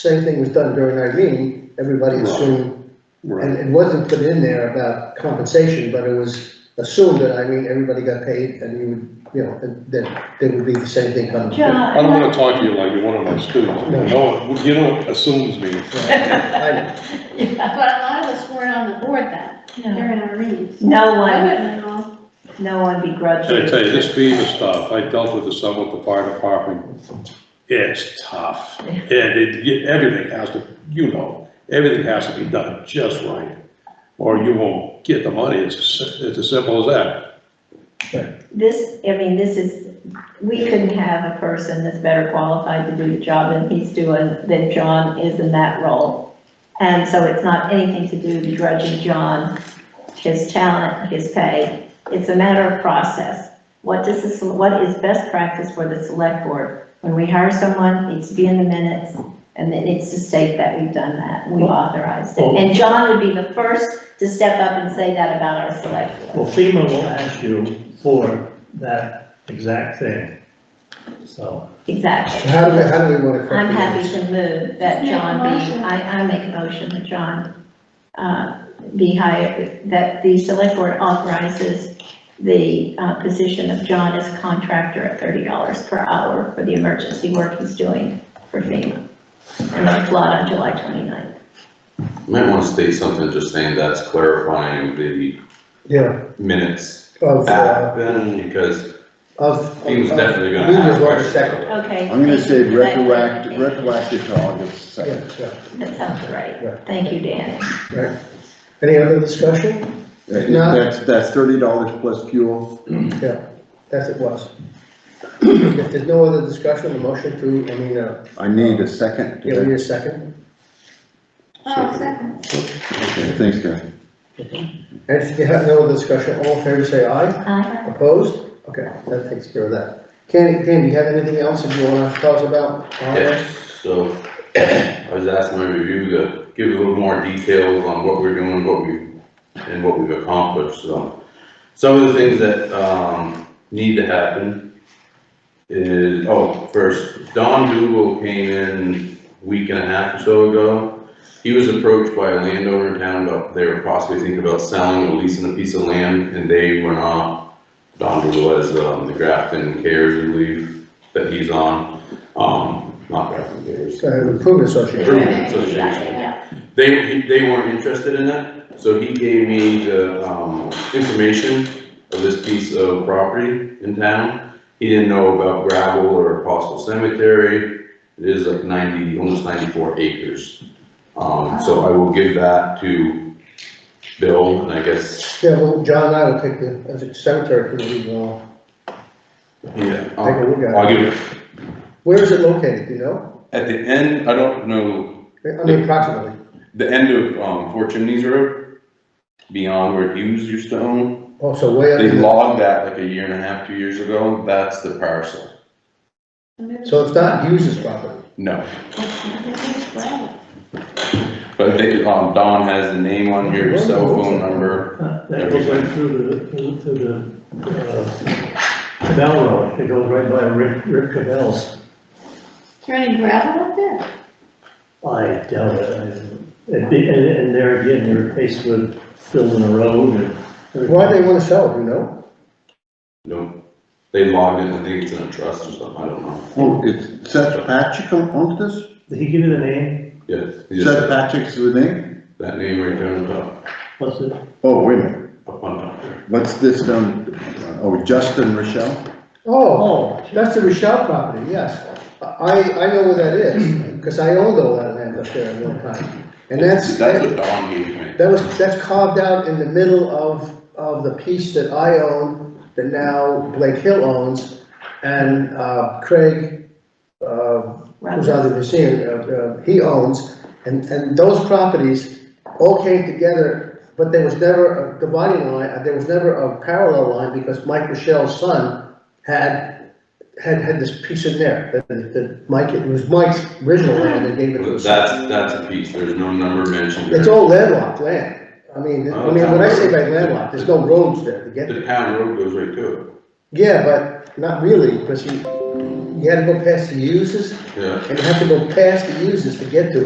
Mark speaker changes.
Speaker 1: same thing was done during Irene, everybody
Speaker 2: Right.
Speaker 1: assumed, and
Speaker 2: Right,
Speaker 1: it wasn't put in there about compensation, but it was assumed that Irene, everybody got paid, and you would, you know, that, that there would be the same thing coming.
Speaker 3: John.
Speaker 2: I don't wanna talk to you like you're one of my students, you know, you know what assumes me.
Speaker 1: I
Speaker 3: Yeah.
Speaker 4: But a lot of us weren't on the board then, during our meetings.
Speaker 3: No
Speaker 4: I
Speaker 3: one,
Speaker 4: wouldn't know.
Speaker 3: no one begrudged
Speaker 2: Should I
Speaker 3: you.
Speaker 2: tell you, this FEMA stuff, I dealt with this some with the fire department, it's tough.
Speaker 3: Yeah.
Speaker 2: And it, you- everything has to, you know, everything has to be done just right, or you won't get the money, it's, as- it's as simple as that.
Speaker 3: This, I mean, this is, we couldn't have a person that's better qualified to do the job than he's doing, than John is in that role. And so it's not anything to do with grudging John, his talent, his pay. It's a matter of process. What does this, what is best practice for the select board? When we hire someone, it's be in the minutes, and it needs to state that we've done that, we authorized it. And John would be the first to step up and say that about our select board.
Speaker 5: Well, FEMA will ask you for that exact thing, so.
Speaker 3: Exactly.
Speaker 1: How do we, how do we want to?
Speaker 3: I'm happy to move that
Speaker 4: Just make a
Speaker 3: John be,
Speaker 4: motion.
Speaker 3: I, I make a motion that John, uh, be hired, that the select board authorizes the, uh, position of John as contractor at thirty dollars per hour for the emergency work he's doing for FEMA. And that's lot on July 29th.
Speaker 6: You Might want to state something, just saying that's clarifying the
Speaker 1: Yeah,
Speaker 6: minutes
Speaker 1: of, uh,
Speaker 6: back then, because
Speaker 1: of.
Speaker 6: he was
Speaker 1: of-
Speaker 6: definitely
Speaker 1: We
Speaker 6: gonna
Speaker 1: just
Speaker 6: have.
Speaker 1: want a second.
Speaker 3: Okay.
Speaker 7: I'm gonna
Speaker 3: thank
Speaker 7: say
Speaker 3: you for that
Speaker 7: retroactive,
Speaker 3: clarification.
Speaker 7: retroactive to August second.
Speaker 1: Yeah, yeah,
Speaker 3: That sounds
Speaker 1: Right.
Speaker 3: right. Thank you, Dan.
Speaker 1: right. Any other discussion?
Speaker 7: That-
Speaker 1: No.
Speaker 7: That's, that's thirty dollars plus fuel.
Speaker 1: Yeah, that's it was. If there's no other discussion, the motion to, I mean, uh,
Speaker 7: I need a second. to
Speaker 1: give
Speaker 7: that.
Speaker 1: me a second.
Speaker 4: Oh, second.
Speaker 7: Okay, thanks, guys.
Speaker 1: And if you have no other discussion, all in favor, say aye.
Speaker 3: Aye.
Speaker 1: Opposed? Okay, that takes care of that. Candy, Candy, you have anything else that you wanna tell us about?
Speaker 6: Yeah, so I was asking my review to give a little more details on what we're doing, what we, and what we've accomplished, so. Some of the things that, um, need to happen is, oh, first, Don Dugal came in a week and a half or so ago. He was approached by a landowner in town about, they were possibly thinking about selling or leasing a piece of land, and they went off. Don Dugal is, um, the Grafton Cares Relief that he's on, um, not Grafton Cares.
Speaker 1: Uh, Improvement Association.
Speaker 6: Improvement Association
Speaker 3: Yeah.
Speaker 6: they, they weren't interested in that, so he gave me the, um, information of this piece of property in town. He didn't know about gravel or possible cemetery, it is like ninety, almost ninety-four acres. Um, so I will give that to Bill, and I guess,
Speaker 1: Yeah, well, John and I will take the, as a cemetery committee, we'll
Speaker 6: yeah,
Speaker 1: take a
Speaker 6: I'll
Speaker 1: look at
Speaker 6: I'll
Speaker 1: it.
Speaker 6: give it,
Speaker 1: Where is it located, do you know?
Speaker 6: at the end, I don't know,
Speaker 1: I mean, approximately.
Speaker 6: the end of, um, Four Chimneys Road, beyond where Hughes used to own.
Speaker 1: Also Oh, way up
Speaker 6: They
Speaker 1: in the,
Speaker 6: logged that like a year and a half, two years ago, that's the parcel.
Speaker 1: so it's not Hughes's property.
Speaker 6: No, but they, um, Don has the name on here, his cell phone number.
Speaker 5: uh, That goes right through the, through the, uh, canal road, it goes right by Rick, Rick Cavell's.
Speaker 4: Is there any gravel up there?
Speaker 5: I doubt it, I, and, the- and and there again, you're faced with building a road and.
Speaker 1: Why they wanna sell it, do you know?
Speaker 6: No, they logged it, I think it's in a trust or something, I don't know.
Speaker 7: Oh, it's Seth Patrick on- onto this?
Speaker 5: Did he give you the name?
Speaker 6: Yes, he just
Speaker 7: Seth
Speaker 6: said
Speaker 7: Patrick's the name?
Speaker 6: that name right there on top,
Speaker 5: What's it?
Speaker 7: Oh, wait a minute,
Speaker 6: up on top there.
Speaker 7: what's this done? Oh, Justin Rochelle?
Speaker 1: Oh, that's the Rochelle property, yes. I, I know where that is, because I owned all that land up there at one time. And that's,
Speaker 6: That's
Speaker 1: that
Speaker 6: what Don gave me.
Speaker 1: was, that's carved out in the middle of, of the piece that I own, that now Blake Hill owns, and uh, Craig, uh, who's on the museum, uh, uh, he owns. And, and those properties all came together, but there was never a dividing line, uh, there was never a parallel line, because Mike Rochelle's son had, had, had this piece in there, that, that Mike, it was Mike's original land that gave it to his son.
Speaker 6: That's, that's a piece, there's no number mentioned.
Speaker 1: It's all landlocked land, I mean, I mean, when I say by landlocked, there's no roads there to get,
Speaker 6: The town road goes right to it.
Speaker 1: yeah, but not really, because he, you had to go past the uses,
Speaker 6: yeah.
Speaker 1: and you have to go past the uses to get to it.